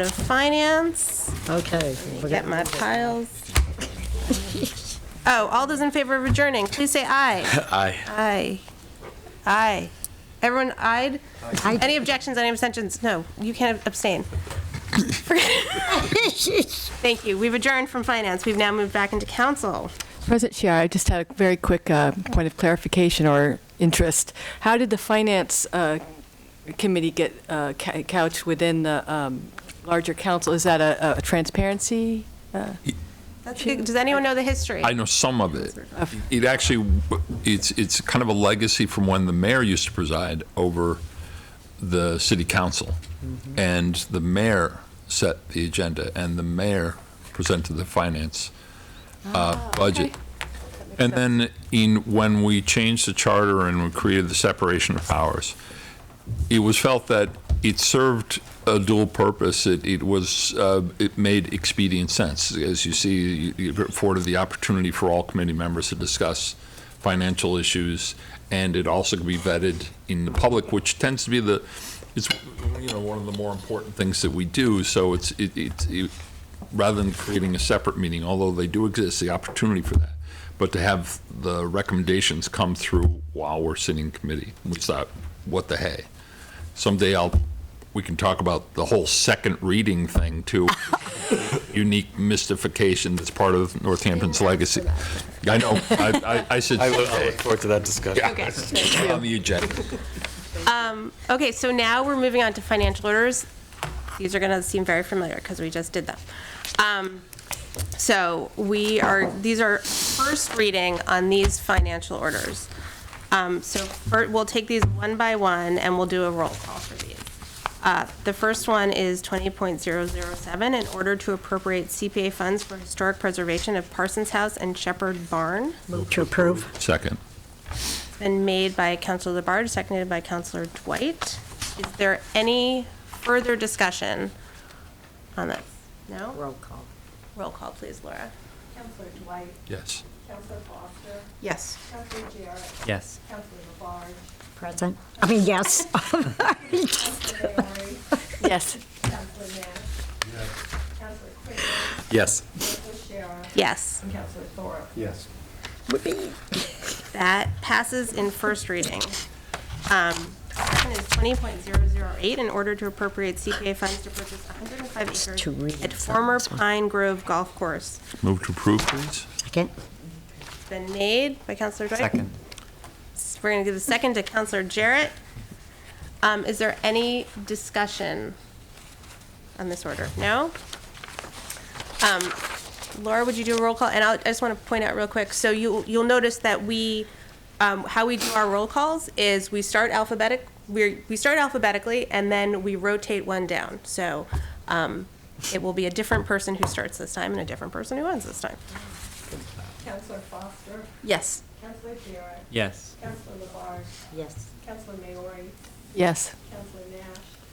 of Finance. Okay. Get my piles. Oh, all those in favor of adjourning, please say aye. Aye. Aye. Aye. Everyone ayed? Any objections, any abstentions? No, you can't abstain. Thank you. We've adjourned from Finance. We've now moved back into Council. President Chiara, I just had a very quick uh, point of clarification or interest. How did the Finance uh, Committee get uh, ca- couched within the um, larger council? Is that a a transparency? uh, That's good. Does anyone know the history? I know some of it. It actually, it's, it's kind of a legacy from when the mayor used to preside over the city council. And the mayor set the agenda, and the mayor presented the finance uh, budget. And then in, when we changed the charter and we created the separation of powers, it was felt that it served a dual purpose. It, it was, uh, it made expedient sense. As you see, it afforded the opportunity for all committee members to discuss financial issues, and it also could be vetted in the public, which tends to be the, it's, you know, one of the more important things that we do. So it's, it, it, it- rather than creating a separate meeting, although they do exist, the opportunity for that. But to have the recommendations come through while we're sitting in committee, which that, what the hey? someday I'll, we can talk about the whole second reading thing too. Unique mystification that's part of Northampton's legacy. I know, I, oh, I I said, I look I look forward to that discussion. yeah, on the agenda. Okay, so now we're moving on to financial orders. These are going to seem very familiar because we just did them. Um, So we are, these are first reading on these financial orders. Um, So fir- we'll take these one by one and we'll do a roll call for these. Uh, The first one is 20.007, in order to appropriate CPA funds for historic preservation of Parsons House and Shepherd Barn. Move to approve. Second. Been made by Counselor Labarge, seconded by Counselor Dwight. Is there any further discussion on this? No? Roll call. Roll call, please, Laura. Counselor Dwight, Yes. Counselor Foster, Yes. Counselor Jarrett, Yes. Counselor LaBarge, Present. I mean, yes. Counselor Barry, Yes. Counselor Nash, Counselor Quigley, Yes. Counselor Shara, Yes. and Counselor Thorpe. Yes. That passes in first reading. Um, Second is 20.008, in order to appropriate CPA funds to purchase 105 two acres readings at on former this one. Pine Grove Golf Course. Move to approve, please? Second. It's Been made by Counselor Dwight. Second. We're going to give a second to Counselor Jarrett. Um, Is there any discussion on this order? No? Um, Laura, would you do a roll call? And I'll- I just want to point out real quick, so you, you'll notice that we, um, how we do our roll calls is we start alphabetic, we, we start alphabetically, and then we rotate one down. So um, it will be a different person who starts this time and a different person who ends this time. Counselor Foster, Yes? Counselor Jarrett, Yes. Counselor LaBarge, Yes. Counselor Maori, Yes. Counselor Nash,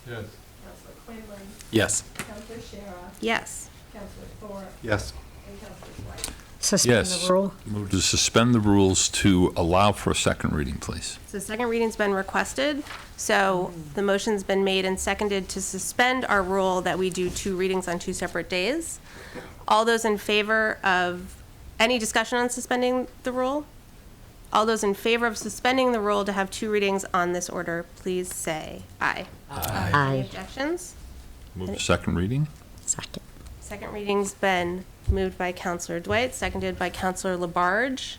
Yes. Counselor Quinlan, Yes. Counselor Shara, Yes. Counselor Thorpe, Yes. and Counselor Dwight. Suspend Yes. the rule. Move to suspend the rules to allow for a second reading, please. So second reading's been requested, so the motion's been made and seconded to suspend our rule that we do two readings on two separate days. All those in favor of, any discussion on suspending the rule? All those in favor of suspending the rule to have two readings on this order, please say aye. Any Aye. objections? Move to second reading? Second. Second reading's been moved by Counselor Dwight, seconded by Counselor Labarge.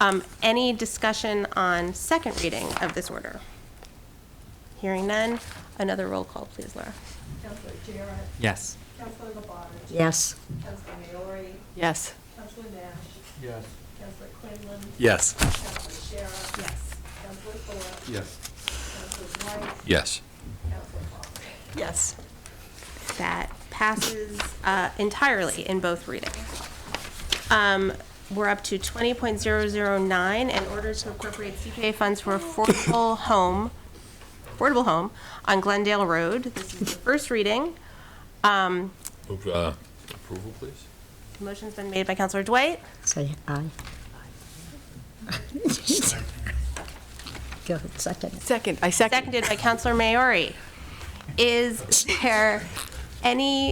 Um, Any discussion on second reading of this order? Hearing none, another roll call, please, Laura. Counselor Jarrett, Yes. Counselor LaBarge, Yes. Counselor Maori, Yes. Counselor Nash, Yes. Counselor Quinlan, Yes. Counselor Shara, Yes. Counselor Thorpe, Yes. Counselor Dwight, Yes. Counselor Foster. Yes. That passes uh, entirely in both readings. Um, We're up to 20.009, in order to appropriate CPA funds for affordable home, affordable home on Glendale Road. This is the first reading. Um, Move uh, approval, please? Motion's been made by Counselor Dwight, Say aye. Go ahead, second. Second, I second. seconded by Counselor Maori. Is there any